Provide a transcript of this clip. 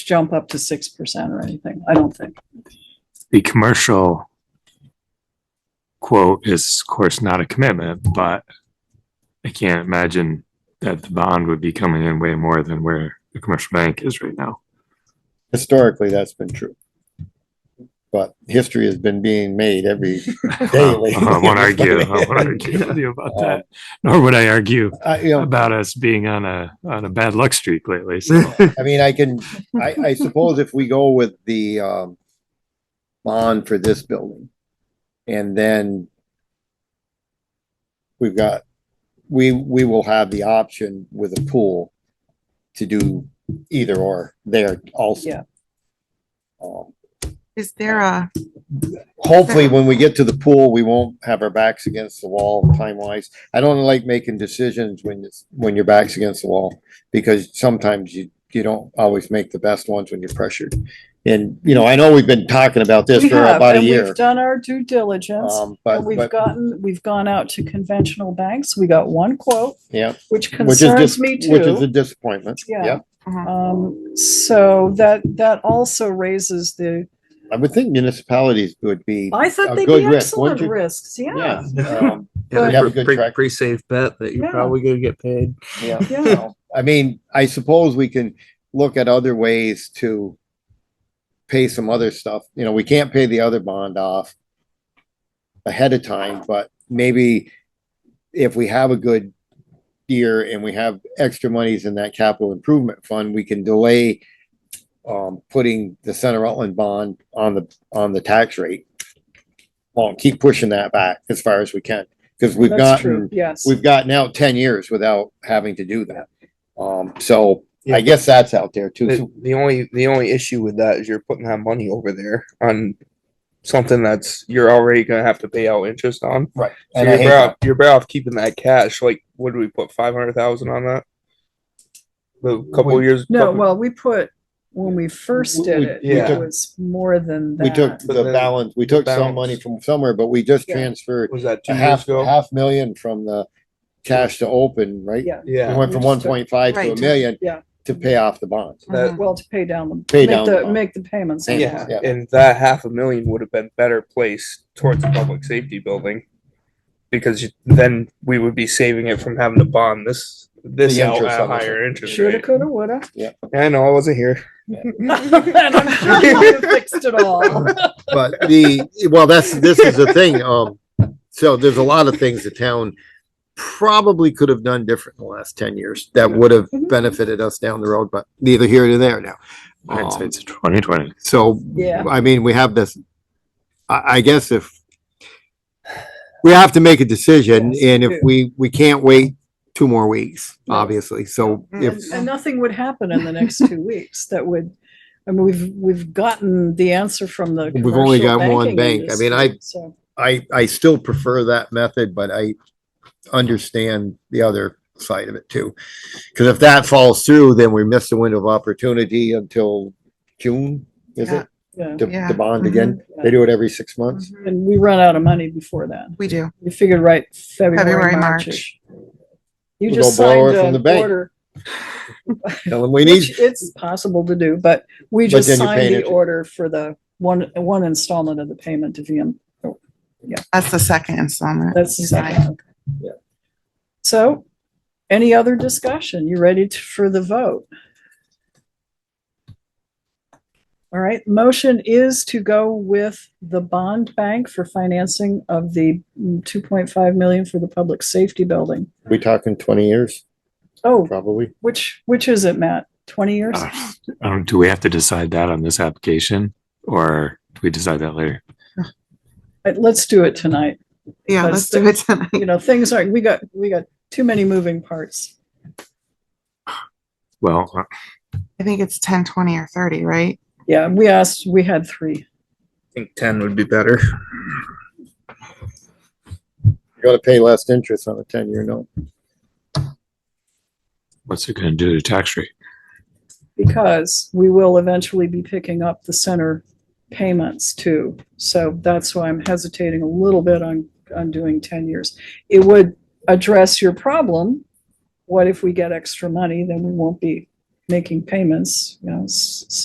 jump up to six percent or anything, I don't think. the commercial quote is of course not a commitment, but I can't imagine that the bond would be coming in way more than where the commercial bank is right now. Historically, that's been true. But history has been being made every, Daily. Uh, I won't argue, I won't argue with you about that, nor would I argue I, you know, about us being on a, on a bad luck streak lately, so. I mean, I can, I, I suppose if we go with the, um, bond for this building, and then we've got, we, we will have the option with a pool to do either or there also. Yeah. Um, Is there a, Hopefully, when we get to the pool, we won't have our backs against the wall time wise. I don't like making decisions when it's, when your back's against the wall. Because sometimes you, you don't always make the best ones when you're pressured. And, you know, I know we've been talking about this We for have, about a and year. We've done our due diligence, Um, but, and we've but, gotten, we've gone out to conventional banks, we got one quote, yeah. which which is concerns dis- me Which is a too. disappointment. Yeah. Yep. uh-huh, Um, so that, that also raises the, I would think municipalities would be, I thought A they'd Oh, good be risk, excellent wouldn't you? risks, yeah. Oh, yeah, um, Yeah, Have a that's a good pretty, track. pretty safe bet that you're Yeah. probably gonna get paid. Yeah. yeah. I mean, I suppose we can look at other ways to pay some other stuff. You know, we can't pay the other bond off ahead of time, but maybe if we have a good year and we have extra monies in that capital improvement fund, we can delay um, putting the Center Rutland bond on the, on the tax rate. Well, keep pushing that back as far as we can, because we've That's gotten true, yes. we've gotten out ten years without having to do that. Um, so I guess that's out there The, too. the only the only issue with that is you're putting that money over there on something that's you're already gonna have to pay out interest on. Right. So And I you're hate better that. off, you're better off keeping that cash. Like, what did we put five hundred thousand on that? A couple We- years. No, couple- well, we put, when we first We- did we- it, we it took- was more than We took that. the balance, we took some balance. money from somewhere, but we just Yeah. transferred was that two a years half, ago? half million from the cash to open, right? Yeah, We yeah. went from We one just took- point five to a Right. million Yeah. to pay off the bonds. uh-huh. That, well, to pay down the. Pay make down the- the bond. Make the payments. Yeah. yeah. Yeah. And that half a million would have been better placed towards the public safety building. Because you, then we would be saving it from having to bond this this The out interest at a on this. higher interest Shoulda, rate. coulda, woulda. I know I wasn't here. And I'm sure you would've fixed it all. But the, well, that's, this is the thing, um, so there's a lot of things the town probably could have done different in the last ten years that would have benefited us down the road, but neither here nor there now. Hindsight's twenty twenty. So, Yeah. I mean, we have this, I, I guess if we have to make a decision Yes, and we if do. we, we can't wait two more weeks, No. obviously. So if, And and nothing would happen in the next two weeks that would, I mean, we've, we've gotten the answer from the. We've only commercial got one banking bank. I mean, I- industry, so, I, I still prefer that method, but I understand the other side of it too. Cause if that falls through, then we miss the window of opportunity until June, is it? Yeah, Mm-hmm. To, Yeah. to bond again. They do it every six months. and we run out of money before then. we do. We figured right February, February, March. You We'll just go borrow signed it from the an bank. order. Mm-hmm. Tell them we need, Which it's possible to do, but we But just then you're paying signed the interest. order for the one, one installment of the payment to VM. That's the second installment. That's the You second. signed. one. So any other discussion? You ready to- for the vote? All right, motion is to go with the bond bank for financing of the two point five million for the public safety building. we talking twenty years, Oh, probably. which, which is it, Matt? Twenty years? Uh, Um, do we have to decide that on this application or do we decide that later? Uh, Let's do it tonight. Yeah, That's let's do it tonight. You know, things are, we got, we got too many moving parts. Well, uh, I think it's ten, twenty or thirty, right? Yeah, we asked, we had three. I think ten would be better. You gotta pay less interest on a ten-year note. what's it gonna do to tax rate? because we will eventually be picking up the center payments too. So that's why I'm hesitating a little bit on, on doing ten years. It would address your problem. What if we get extra money, then we won't be making payments, you know, s-